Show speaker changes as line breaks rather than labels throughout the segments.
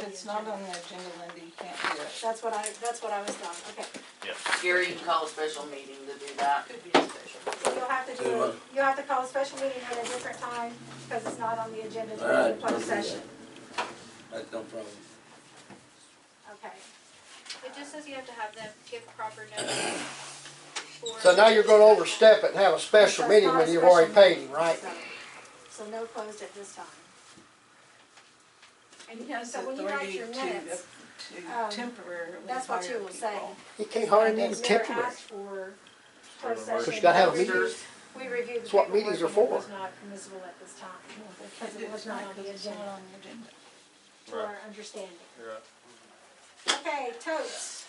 it's not on the agenda, Linda, you can't do it.
That's what I, that's what I was done, okay.
Gary, you can call a special meeting to do that.
Could be a special.
So you'll have to do,
Tell you
it- you'll have to call a special meeting at a different time, because it's not on the agenda
All
during the
right, don't
closed
do that.
session,
That's no problem.
okay?
It just says you have to have them give proper notice. for-
So now you're gonna overstep it and have a special
That's
meeting
not
when
a
you've
special
already paid
meeting,
him, right?
so- So no closed at this time.
And he has
So when you write
authority
your
to, uh,
minutes,
to
um,
temporarily
That's what you will say.
He can't hardly
And
even
it's never
temporary.
asked for closed
But you
session
gotta have a
because
meeting.
We reviewed the
That's what meetings
paperwork
are
and it was
for.
not permissible at this time, because it was not on the agenda, to
Right.
our understanding.
You're right.
Okay, totes,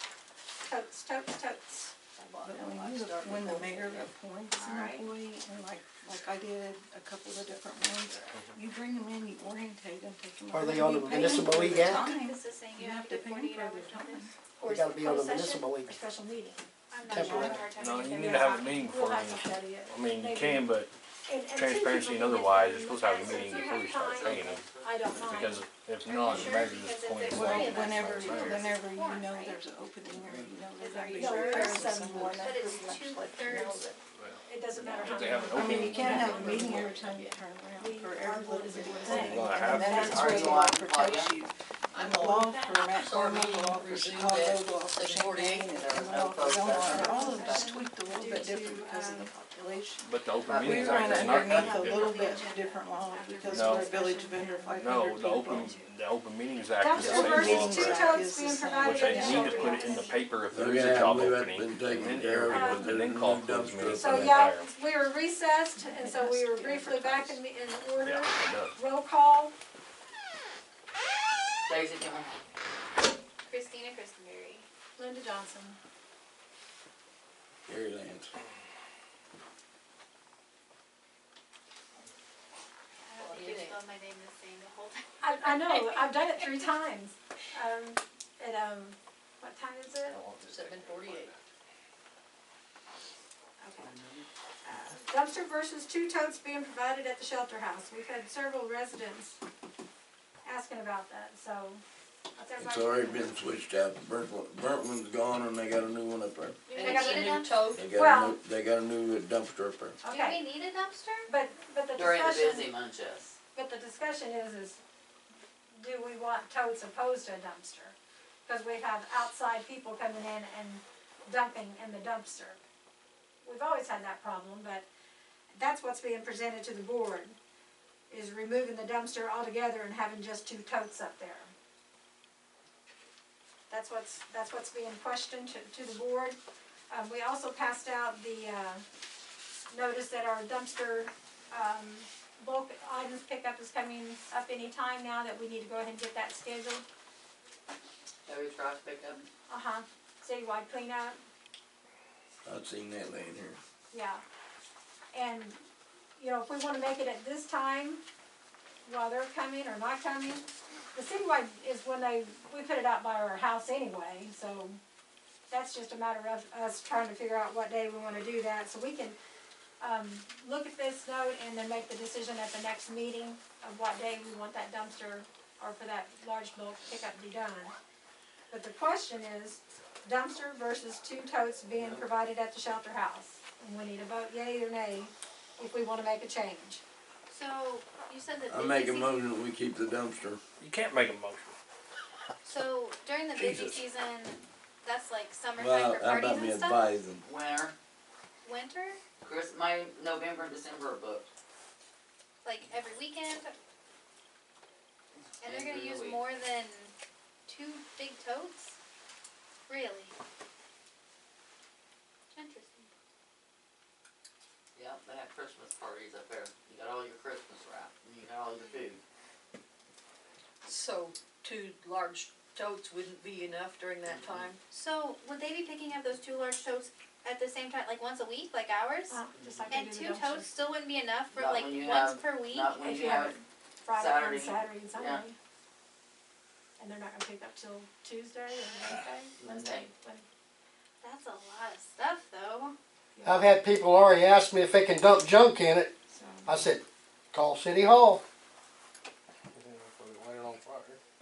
totes, totes, totes.
But when you, when the mayor appoints an
Alright.
employee, and like, like I did a couple of different ones, you bring them in, you orientate them, take them.
Are
over,
they on
you
the
pay them
Municipal
for
League
the
Act?
time.
This is saying you
You
have
have
to
to
give
pay
forty-eight
for
hours
the
notice.
Or
You
is it
gotta be on the
closed session
municipal league.
or Special meeting.
I'm not sure.
Temporary.
It's hard to
No, you
figure
need
it
to have
out.
a meeting
We'll
for
have to study it.
I mean, you
Maybe.
can, but
And- and since
transparency
you're
and
looking
otherwise,
at
you're supposed to have a
this,
meeting
since you
before
have
you start
time,
paying them,
I don't mind.
because if
Are you
not,
sure?
the mayor's just
Because if
appointing
it's
one.
Well,
Right, that's
whenever,
what it is.
whenever you
Warrant,
know
right?
there's an opening, or you know
Is
there's
there
gonna be
usually
repairs
some
or something.
more
But it's two-thirds.
It doesn't matter how many.
They have an
I mean, you
opening.
can't have a meeting every time you turn around, for every little bit of thing,
Well, I
and
have
then
to.
that's where the law protects you.
I'm
The law for Matt Carmen, the law for Chicago, the law for
The 48,
Champaign, and
there was
the
no
law for Illinois,
protest.
all of them just tweaked a little bit different because of the population.
But the open
But
We
meetings
run
act is not
underneath a
that
little
different.
bit different law because
No.
we're a village of under five hundred
No,
people.
the open, the open meetings act is the
Council
same law,
versus two
for-
totes being
which
provided
they
in
need to put it in the
the.
paper if there is a
Yeah,
job
we've
opening,
been
and
taken
then
care
every,
of.
and then call those meetings.
So
and
y'all,
hire 'em.
we were recessed and so we were briefly back in, in order.
Yeah, it does.
Roll call,
Daisy Jones.
Christina Christenberry.
Linda Johnson.
Gary Lance.
I don't think Uh, you spelled my name the same the whole time.
I, I know, I've done it three times. Um, at, um, what time is it?
Seven forty-eight.
Okay. Uh, Dumpster versus two totes being provided at the shelter house. We've had several residents asking about that, so. what's
It's
everybody-
already been switched out. Burnt, one- burnt one's gone and they got a new one up there.
Do
And
we
got
it's
it
a
need a
new
dumpster?
tote.
They got a
Well-
new, they got a new dumpster up there.
Do
Okay,
we need a dumpster?
but, but the
During the busy
discussion,
months, yes.
but the discussion is, is do we want totes opposed to a dumpster? Cause we have outside people coming in and dumping in the dumpster. We've always had that problem, but that's what's being presented to the board, is removing the dumpster altogether and having just two totes up there. That's what's, that's what's being questioned to, to the board. Um, we also passed out the, uh, notice that our dumpster, um, bulk items pickup is coming up any time now, that we need to go ahead and get that scheduled.
Heavy trash pickup.
Uh-huh, citywide cleanup,
I've seen that laying here.
yeah. And, you know, if we wanna make it at this time, while they're coming or not coming, the citywide is when they, we put it out by our house anyway, so that's just a matter of us trying to figure out what day we wanna do that, so we can, um, look at this note and then make the decision at the next meeting of what day we want that dumpster or for that large bulk pickup to be done. But the question is dumpster versus two totes being provided at the shelter house. And we need a vote yea or nay if we wanna make a change.
So you said that.
I
busy
make a
season-
motion that we keep the dumpster.
You can't make a motion.
So during the busy
Jesus.
season, that's like summertime
Well,
for
how
parties
about me
and stuff?
advising?
Winter,
Winter?
Chris, May, November, and December are booked.
Like every weekend? And they're
Every
gonna use
week.
more than two big totes? Really? Interesting.
Yep, they have Christmas parties up there. You got all your Christmas wrap, and you got all your food.
So two large totes wouldn't be enough during that time?
So would they be picking up those two large totes at the same time, like once a week, like ours?
Uh, Just like
And
we do
two
the dumpster.
totes still wouldn't be enough for
Not
like
when you
once
have-
per week?
Not when
If
you
you
have,
have Friday
Saturday.
and Saturday and Sunday.
Yeah.
And they're not gonna pick up till Tuesday or Wednesday?
Wednesday.
Wednesday.
That's a lot of stuff though.
I've had people already ask me if they can dump junk in it.
So,
I said, call City Hall.